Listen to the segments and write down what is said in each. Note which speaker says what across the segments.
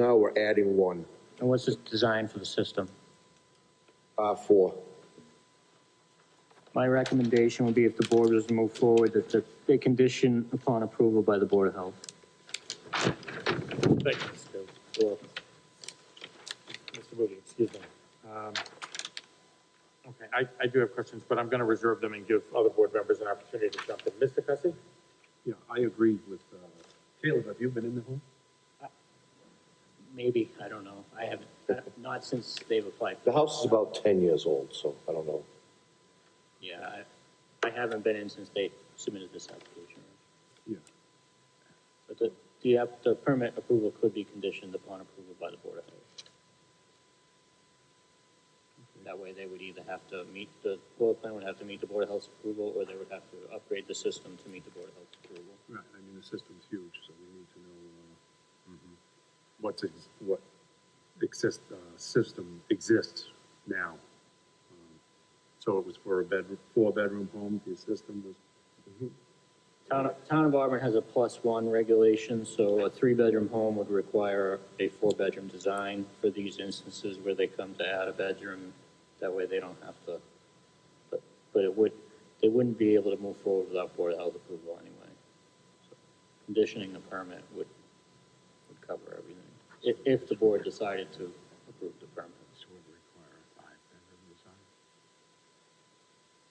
Speaker 1: Now we're adding one,
Speaker 2: And what's this design for the system?
Speaker 1: R4.
Speaker 2: My recommendation would be if the board was to move forward, that the- they condition upon approval by the Board of Health.
Speaker 3: Thank you, Mr. Bill. Mr. Boogie, excuse me. Um, Okay, I, I do have questions, but I'm going to reserve them and give other board members an opportunity to jump in. Mr. Cussy?
Speaker 4: Yeah, I agree with, uh, Caleb, have you been in the home?
Speaker 2: Maybe, I don't know. I haven't, not since they've applied.
Speaker 1: The house is about 10 years old, so I don't know.
Speaker 2: Yeah, I, I haven't been in since they submitted this application.
Speaker 4: Yeah.
Speaker 2: But the, the, app- the permit approval could be conditioned upon approval by the Board of Health. That way they would either have to meet, the floor plan would have to meet the Board of Health's approval, or they would have to upgrade the system to meet the Board of Health's approval.
Speaker 4: Right, I mean, the system's huge, so we need to know, uh, what's, ex- what exist, uh, system exists now. Um, So it was for a bedroom, four-bedroom home, the system was,
Speaker 2: Town, of- Town of Auburn has a plus one regulation, so a three-bedroom home would require a four-bedroom design for these instances where they come to add a bedroom. That way they don't have to, but, but it would, they wouldn't be able to move forward without Board of Health approval anyway. So Conditioning the permit would, would cover everything, if, if the board decided to approve the permit.
Speaker 4: this would require a five-bedroom design.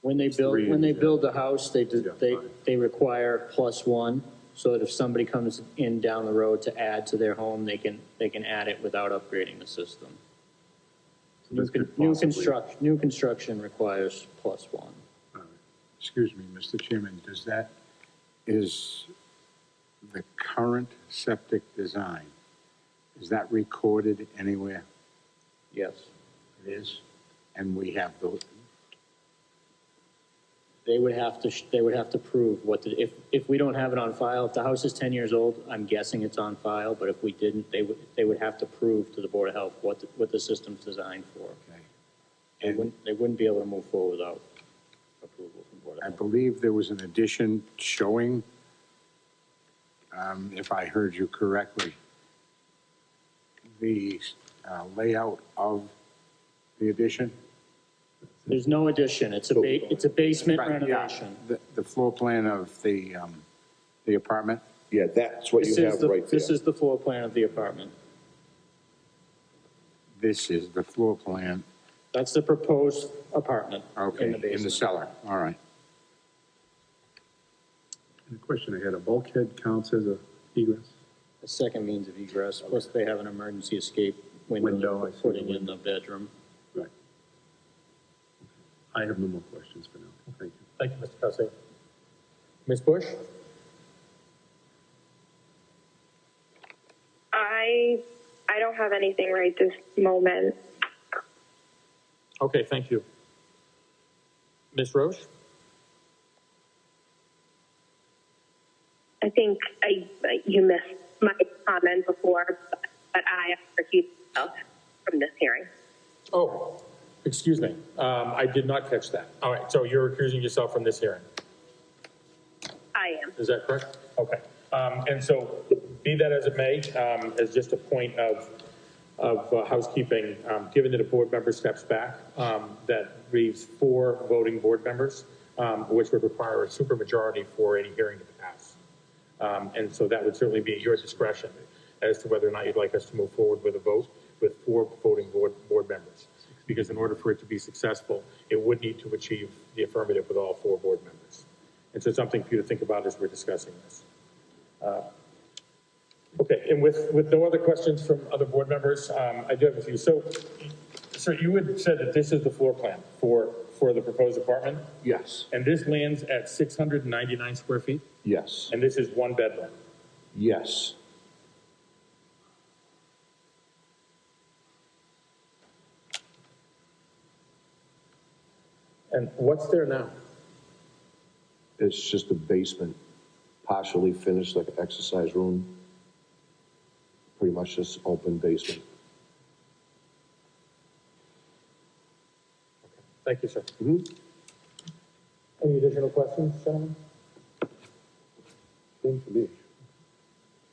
Speaker 2: When they build,
Speaker 4: three
Speaker 2: when they
Speaker 4: and- uh,
Speaker 2: build the house, they, do-
Speaker 4: Yeah,
Speaker 2: they,
Speaker 4: fine.
Speaker 2: they require plus one, so that if somebody comes in down the road to add to their home, they can, they can add it without upgrading the system.
Speaker 4: So
Speaker 2: New
Speaker 4: this
Speaker 2: con-
Speaker 4: could
Speaker 2: new
Speaker 4: possibly-
Speaker 2: construct, new construction requires plus one.
Speaker 4: All right. Excuse me, Mr. Chairman, does that, is the current septic design, is that recorded anywhere?
Speaker 2: Yes.
Speaker 4: It is. And we have the,
Speaker 2: They would have to, sh- they would have to prove what, the if, if we don't have it on file, if the house is ten years old, I'm guessing it's on file, but if we didn't, they would, they would have to prove to the Board of Health what, the- what the system's designed for.
Speaker 4: okay.
Speaker 2: They
Speaker 4: And
Speaker 2: wouldn't, they wouldn't be able to move forward without approval from Board of
Speaker 4: I
Speaker 2: Health.
Speaker 4: believe there was an addition showing, um, if I heard you correctly, the uh, layout of the addition?
Speaker 2: There's no addition, it's a, ba- it's a basement
Speaker 4: Right, yeah.
Speaker 2: renovation.
Speaker 4: The, the floor plan of the, um, the apartment?
Speaker 1: Yeah, that's what
Speaker 2: This
Speaker 1: you
Speaker 2: is
Speaker 1: have
Speaker 2: the-
Speaker 1: right
Speaker 2: This
Speaker 1: there.
Speaker 2: is the floor plan of the apartment.
Speaker 4: This is the floor plan,
Speaker 2: That's the proposed apartment in the
Speaker 4: okay, in the
Speaker 2: basement.
Speaker 4: cellar, all right.
Speaker 5: The question I had, a bulkhead counts as a egress?
Speaker 2: The second means of egress, plus they have an emergency escape window
Speaker 5: Window, I
Speaker 2: that
Speaker 5: see
Speaker 2: they're
Speaker 5: the
Speaker 2: putting in the bedroom.
Speaker 5: Right. I have no more questions for now. Thank you.
Speaker 3: Thank you, Mr. Cussy. Ms. Bush?
Speaker 6: I I don't have anything right this moment.
Speaker 3: Okay, thank you. Ms. Roche?
Speaker 6: I think I you missed my comment before, but, but I recuse myself from this hearing.
Speaker 3: Oh, excuse me, um, I did not catch that. All right, so you're recusing yourself from this hearing?
Speaker 6: I am.
Speaker 3: Is that correct? Okay. Um, And so, be that as it may, um, as just a point of, of uh, housekeeping, um, given that a board member steps back, um, that leaves four voting board members, um, which would require a supermajority for any hearing to pass. Um, And so that would certainly be at your discretion as to whether or not you'd like us to move forward with a vote with four voting board, board members. Because in order for it to be successful, it would need to achieve the affirmative with all four board members. And so something for you to think about as we're discussing this. Uh, Okay, and with, with no other questions from other board members, um, I do have a few. So, sir, you had said that this is the floor plan for, for the proposed apartment,
Speaker 1: Yes,
Speaker 3: and this lands at 699 square feet,
Speaker 1: yes,
Speaker 3: and this is one bedroom.
Speaker 1: yes.
Speaker 3: And what's there now?
Speaker 1: It's just a basement, partially finished, like an exercise room. Pretty much just open basement.
Speaker 3: Thank you, sir.
Speaker 1: Mhm.
Speaker 3: Any additional questions, gentlemen?
Speaker 1: Seems to be.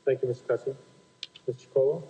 Speaker 3: Thank you, Mr. Cussy. Mr. Chacolo?